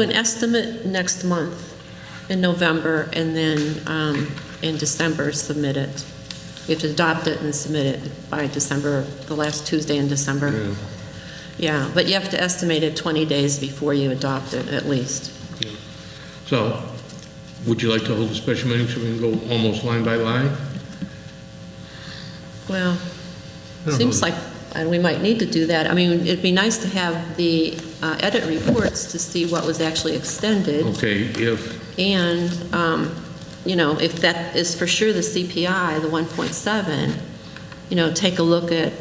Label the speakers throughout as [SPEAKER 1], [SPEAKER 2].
[SPEAKER 1] An estimate next month in November, and then um, in December, submit it. You have to adopt it and submit it by December, the last Tuesday in December. Yeah, but you have to estimate it 20 days before you adopt it, at least.
[SPEAKER 2] So, would you like to hold a special meeting so we can go almost line by line?
[SPEAKER 1] Well,
[SPEAKER 2] don't
[SPEAKER 1] seems
[SPEAKER 2] know.
[SPEAKER 1] like, and we might need to do that. I mean, it'd be nice to have the uh, edit reports to see what was actually extended.
[SPEAKER 2] Okay, if,
[SPEAKER 1] And, um, you know, if that is for sure the CPI, the 1.7, you know, take a look at,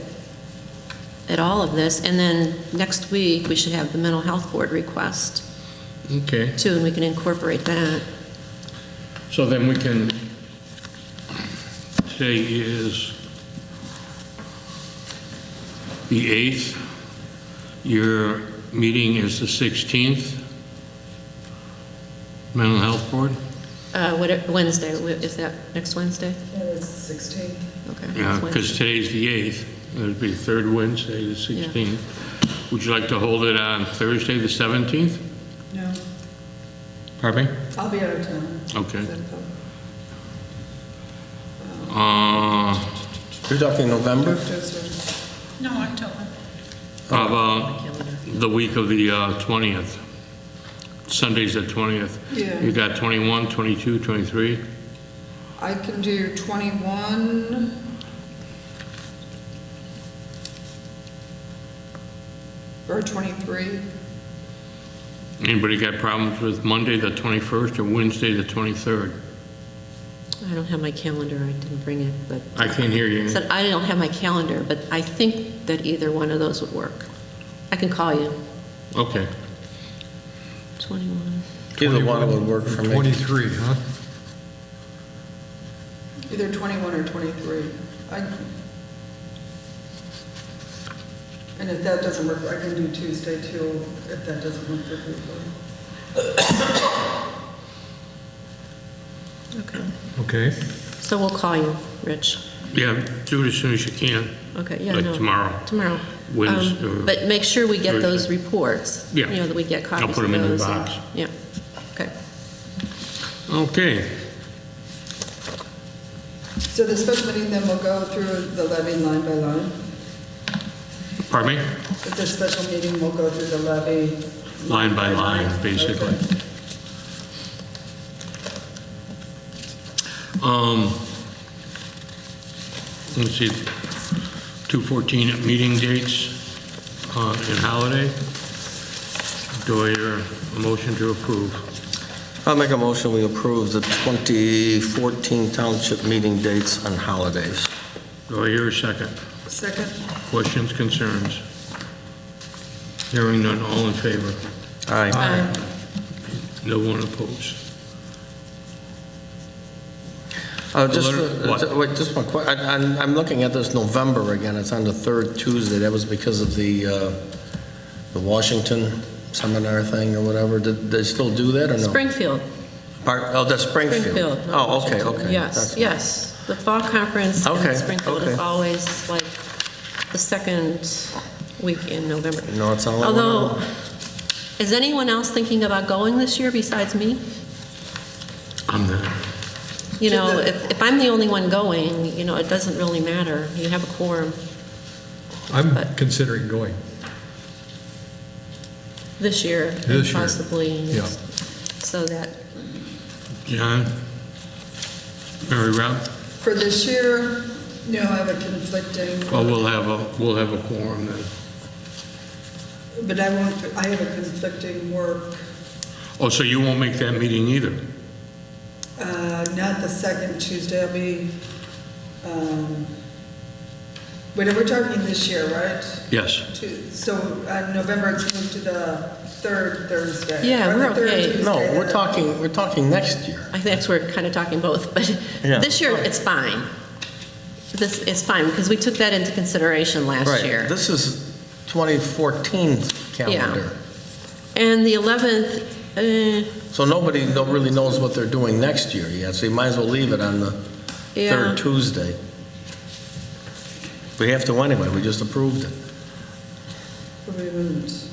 [SPEAKER 1] at all of this. And then next week, we should have the mental health board request
[SPEAKER 2] okay,
[SPEAKER 1] too, and we can incorporate that.
[SPEAKER 2] so then we can, today is the 8th, your meeting is the 16th, mental health board?
[SPEAKER 1] Uh, what, Wednesday, wh- is that next Wednesday?
[SPEAKER 3] Yeah, it's
[SPEAKER 1] Okay.
[SPEAKER 3] 16.
[SPEAKER 2] Yeah,
[SPEAKER 1] next Wednesday.
[SPEAKER 2] because today's the 8th, it'd be the third Wednesday, the 16th. Would you like to hold it on Thursday, the 17th?
[SPEAKER 3] No,
[SPEAKER 2] Pardon me?
[SPEAKER 3] I'll be out of town.
[SPEAKER 2] Okay.
[SPEAKER 3] Simple.
[SPEAKER 2] Uh,
[SPEAKER 4] You're talking November?
[SPEAKER 3] Just,
[SPEAKER 5] No, October.
[SPEAKER 2] How about the week of the uh, 20th? Sunday's the 20th.
[SPEAKER 3] Yeah.
[SPEAKER 2] You got 21, 22, 23?
[SPEAKER 3] uh, I can do 21. Or 23.
[SPEAKER 2] Anybody got problems with Monday, the 21st, or Wednesday, the 23rd?
[SPEAKER 1] I don't have my calendar, I didn't bring it, but,
[SPEAKER 2] I can't hear you.
[SPEAKER 1] said I don't have my calendar, but I think that either one of those would work. I can call you.
[SPEAKER 2] Okay.
[SPEAKER 1] 21.
[SPEAKER 4] Either one would work for me.
[SPEAKER 6] 23, huh?
[SPEAKER 3] Either 21 or 23. I And if that doesn't work, I can do Tuesday too, if that doesn't work for people.
[SPEAKER 1] Okay.
[SPEAKER 6] Okay.
[SPEAKER 1] So we'll call you, Rich.
[SPEAKER 2] Yeah, do it as soon as you can.
[SPEAKER 1] Okay, yeah,
[SPEAKER 2] Like
[SPEAKER 1] no.
[SPEAKER 2] tomorrow.
[SPEAKER 1] Tomorrow.
[SPEAKER 2] Wednesday
[SPEAKER 1] Um,
[SPEAKER 2] or
[SPEAKER 1] But make sure we get those
[SPEAKER 2] Thursday.
[SPEAKER 1] reports.
[SPEAKER 2] Yeah.
[SPEAKER 1] You know, that we get
[SPEAKER 2] I'll
[SPEAKER 1] copies of those.
[SPEAKER 2] put 'em in the
[SPEAKER 1] and-
[SPEAKER 2] box.
[SPEAKER 1] Yeah, okay.
[SPEAKER 2] Okay.
[SPEAKER 3] So the special meeting then will go through the levy line by line?
[SPEAKER 2] Pardon me?
[SPEAKER 3] At this special meeting, we'll go through the levy.
[SPEAKER 2] Line by line, basically.
[SPEAKER 3] Okay.
[SPEAKER 2] Um, let's see, 214 meeting dates uh, and holiday. Do I hear a motion to approve?
[SPEAKER 4] I'll make a motion, we approve the 2014 township meeting dates and holidays.
[SPEAKER 2] Do I hear a second?
[SPEAKER 3] Second?
[SPEAKER 2] Questions, concerns? Hearing none, all in favor?
[SPEAKER 4] Aye.
[SPEAKER 1] Uh,
[SPEAKER 2] No one opposed?
[SPEAKER 4] Uh, Just,
[SPEAKER 2] Alert-
[SPEAKER 4] uh,
[SPEAKER 2] what?
[SPEAKER 4] ju- wait, just one que, I- I'm I'm looking at this November again, it's on the third Tuesday, that was because of the, uh, the Washington seminar thing or whatever, did they still do that or no?
[SPEAKER 1] Springfield,
[SPEAKER 4] Part- Oh, that's Springfield.
[SPEAKER 1] Springfield. not
[SPEAKER 4] Oh, okay,
[SPEAKER 1] Washington.
[SPEAKER 4] okay.
[SPEAKER 1] Yes,
[SPEAKER 4] That's-
[SPEAKER 1] yes. The fall conference in
[SPEAKER 4] Okay,
[SPEAKER 1] Springfield is
[SPEAKER 4] okay.
[SPEAKER 1] always like the second week in November.
[SPEAKER 4] No, it's all.
[SPEAKER 1] Although, is anyone else thinking about going this year besides me?
[SPEAKER 2] I'm not.
[SPEAKER 1] You know, if, if I'm the only one going, you know, it doesn't really matter. You have a quorum
[SPEAKER 6] I'm
[SPEAKER 1] But-
[SPEAKER 6] considering going.
[SPEAKER 1] this year, and
[SPEAKER 6] This year,
[SPEAKER 1] possibly.
[SPEAKER 6] yeah.
[SPEAKER 1] So that
[SPEAKER 2] John? Mary Rob?
[SPEAKER 3] For this year, no, I have a conflicting,
[SPEAKER 2] Well, we'll have a, we'll have a quorum then.
[SPEAKER 3] but I won't, I have a conflicting work,
[SPEAKER 2] Oh, so you won't make that meeting either?
[SPEAKER 3] uh, not the second Tuesday, I'll be, um, wait, we're talking this year, right?
[SPEAKER 2] Yes.
[SPEAKER 3] To- So uh, November, it's moved to the third Thursday.
[SPEAKER 1] Yeah,
[SPEAKER 3] or the
[SPEAKER 1] we're
[SPEAKER 3] third
[SPEAKER 1] okay.
[SPEAKER 3] Tuesday
[SPEAKER 4] No,
[SPEAKER 3] in
[SPEAKER 4] we're
[SPEAKER 3] the-
[SPEAKER 4] talking, we're talking next year.
[SPEAKER 1] I think that's where we're kind of talking both, but
[SPEAKER 4] Yeah.
[SPEAKER 1] this year, it's fine. This is fine, because we took that into consideration last
[SPEAKER 4] Right.
[SPEAKER 1] year.
[SPEAKER 4] This is 2014 calendar.
[SPEAKER 1] And the 11th, eh,
[SPEAKER 4] So nobody no- really knows what they're doing next year yet, so you might as well leave it on the
[SPEAKER 1] Yeah.
[SPEAKER 4] third Tuesday. We have to anyway, we just approved it.
[SPEAKER 3] We moved.